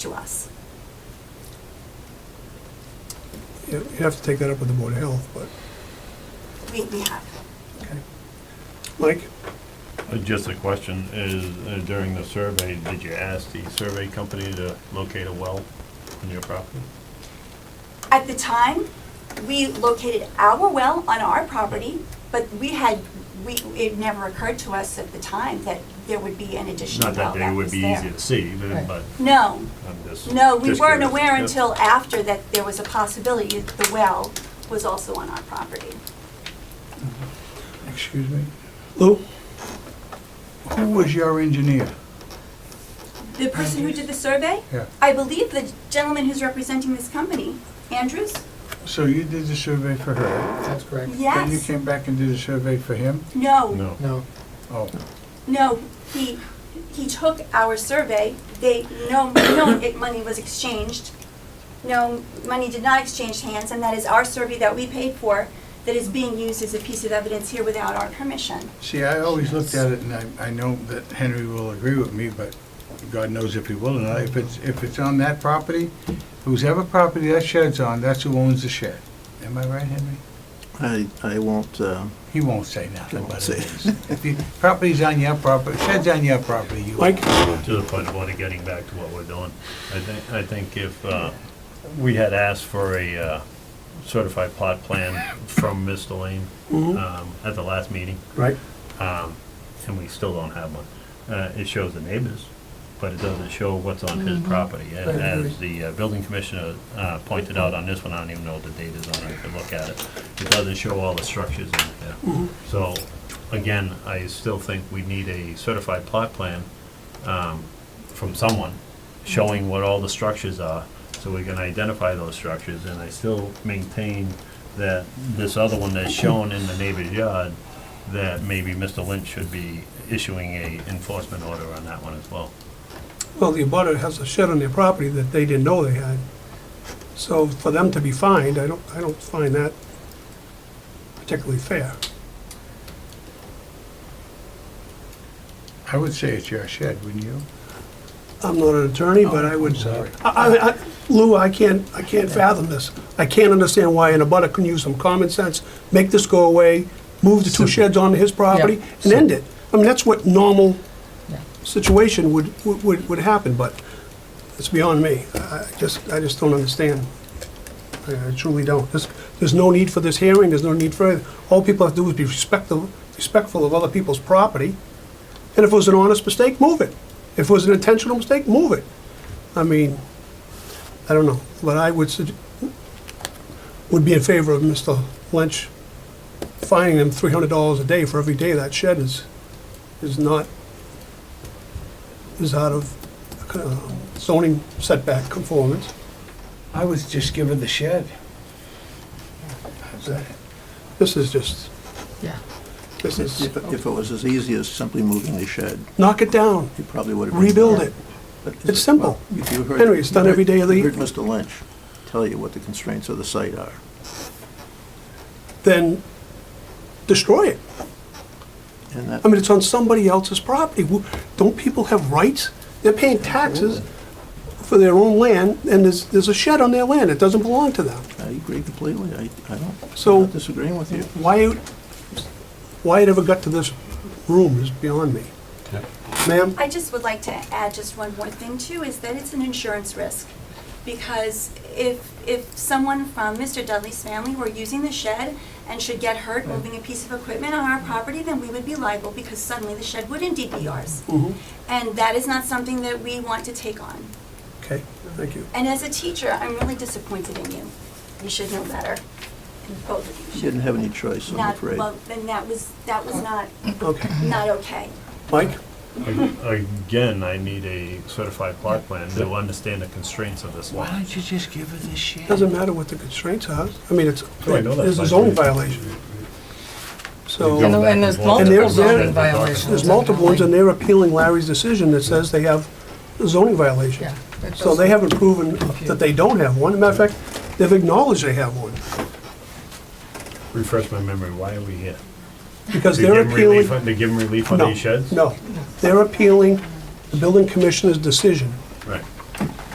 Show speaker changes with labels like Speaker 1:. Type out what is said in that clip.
Speaker 1: to us.
Speaker 2: You you have to take that up with the Board of Health, but,
Speaker 1: We, we have.
Speaker 2: okay. Mike?
Speaker 3: Uh, Just a question, is uh, during the survey, did you ask the survey company to locate a well on your property?
Speaker 1: At the time, we located our well on our property, but we had, we, it never occurred to us at the time that there would be an additional
Speaker 3: Not
Speaker 1: well
Speaker 3: that they
Speaker 1: that
Speaker 3: would
Speaker 1: was
Speaker 3: be
Speaker 1: there.
Speaker 3: easy to see, but
Speaker 4: Right.
Speaker 3: but
Speaker 1: No,
Speaker 3: I'm just.
Speaker 1: no, we
Speaker 3: just
Speaker 1: weren't
Speaker 3: curious.
Speaker 1: aware
Speaker 3: Yeah.
Speaker 1: until after that there was a possibility that the well was also on our property.
Speaker 2: Excuse me? Lou?
Speaker 5: Who was your engineer?
Speaker 1: The person who did the survey?
Speaker 5: Yeah.
Speaker 1: I believe the gentleman who's representing this company, Andrews?
Speaker 5: So you did the survey for her?
Speaker 4: That's correct.
Speaker 5: Then you
Speaker 1: Yes.
Speaker 5: came back and did a survey for him?
Speaker 1: No,
Speaker 3: No.
Speaker 4: No,
Speaker 5: Oh,
Speaker 1: no, he, he took our survey, they, no, no it- money was exchanged. No, money did not exchange hands, and that is our survey that we paid for that is being used as a piece of evidence here without our permission.
Speaker 5: see, I always looked at it and I, I know that Henry will agree with me, but God knows if he will or not. If it's, if it's on that property, whoever property that shed's on, that's who owns the shed. Am I right, Henry?
Speaker 6: I, I won't, uh,
Speaker 5: He won't say nothing,
Speaker 6: He won't
Speaker 5: but
Speaker 6: say.
Speaker 5: it is. If the property's on your property, shed's on your property, you.
Speaker 2: Mike?
Speaker 3: To the point of what, getting back to what we're doing, I think, I think if uh, we had asked for a uh, certified plot plan from Ms. Delane um, at the last meeting,
Speaker 2: Right.
Speaker 3: um, and we still don't have one. Uh, It shows the neighbors, but it doesn't show what's on his property. And
Speaker 4: Mm-hmm. I agree.
Speaker 3: as the uh, building commissioner uh, pointed out on this one, I don't even know what the date is on it, I could look at it. It doesn't show all the structures in
Speaker 4: Mm-hmm.
Speaker 3: there. So, again, I still think we need a certified plot plan um, from someone showing what all the structures are, so we can identify those structures. And I still maintain that this other one that's shown in the neighbor's yard, that maybe Mr. Lynch should be issuing a enforcement order on that one as well.
Speaker 2: Well, the abutter has a shed on their property that they didn't know they had. So for them to be fined, I don't, I don't find that particularly fair.
Speaker 5: I would say it's your shed, wouldn't you?
Speaker 2: I'm not an attorney, but I would,
Speaker 5: Oh, Sorry.
Speaker 2: I- I, I, Lou, I can't, I can't fathom this. I can't understand why an abutter couldn't use some common sense, make this go away, move the two sheds onto his property,
Speaker 4: Yeah.
Speaker 2: and end it. I mean, that's what normal
Speaker 4: Yeah.
Speaker 2: situation would, would- would, would happen, but it's beyond me. I I just, I just don't understand. I I truly don't. There's, there's no need for this hearing, there's no need for, it. all people have to do is be respectful, respectful of other people's property, and if it was an honest mistake, move it. If it was an intentional mistake, move it. I mean, I don't know, but I would, sug- would be in favor of Mr. Lynch fining him three hundred dollars a day for every day that shed is, is not, is out of uh, zoning setback conformance.
Speaker 5: I was just given the shed.
Speaker 2: This is just,
Speaker 4: yeah.
Speaker 2: this is,
Speaker 6: if if it was as easy as simply moving the shed,
Speaker 2: knock it down,
Speaker 6: you probably would have.
Speaker 2: rebuild it.
Speaker 6: But-
Speaker 2: It's simple.
Speaker 6: Well, you heard-
Speaker 2: Henry, it's done every day of the
Speaker 6: you heard
Speaker 2: year.
Speaker 6: Mr. Lynch tell you what the constraints of the site are.
Speaker 2: Then destroy it.
Speaker 6: And that,
Speaker 2: I mean, it's on somebody else's property. Wh- Don't people have rights? They're paying taxes for their own land, and there's, there's a shed on their land. It doesn't belong to them.
Speaker 6: I agree completely. I, I don't, I'm
Speaker 2: So-
Speaker 6: not disagreeing with you.
Speaker 2: Why, it- why it ever got to this room is beyond me. Ma'am?
Speaker 1: I just would like to add just one more thing too, is that it's an insurance risk. Because if, if someone from Mr. Dudley's family were using the shed and should get hurt moving a piece of equipment on our property, then we would be liable because suddenly the shed would indeed be ours.
Speaker 3: Mm-hmm.
Speaker 1: And that is not something that we want to take on.
Speaker 2: Okay, thank you.
Speaker 1: And as a teacher, I'm really disappointed in you. You should know better. And both of you
Speaker 6: You
Speaker 1: should.
Speaker 6: didn't have any choice, I'm
Speaker 1: Not,
Speaker 6: afraid.
Speaker 1: well, then that was, that was not,
Speaker 2: Okay.
Speaker 1: not okay.
Speaker 2: Mike?
Speaker 3: Again, I need a certified plot plan to understand the constraints of this lot.
Speaker 5: don't you just give her the shed?
Speaker 2: Doesn't matter what the constraints are. I mean, it's,
Speaker 3: Oh, I know that.
Speaker 2: there's a zoning violation.
Speaker 4: And
Speaker 2: So,
Speaker 4: there- and there's
Speaker 3: And
Speaker 2: they're-
Speaker 4: multiple zoning
Speaker 3: they're-
Speaker 4: violations.
Speaker 2: there's multiple ones, and they're appealing Larry's decision that says they have a zoning violation.
Speaker 4: Yeah, that
Speaker 2: So they
Speaker 4: does-
Speaker 2: haven't proven that they don't have one. Matter of fact, they've acknowledged they have one,
Speaker 3: Refresh my memory, why are we here?
Speaker 2: because
Speaker 3: To give
Speaker 2: they're
Speaker 3: him
Speaker 2: appealing.
Speaker 3: relief, on- to give him relief on
Speaker 2: No,
Speaker 3: these sheds?
Speaker 2: No, they're appealing the building commissioner's decision
Speaker 3: Right,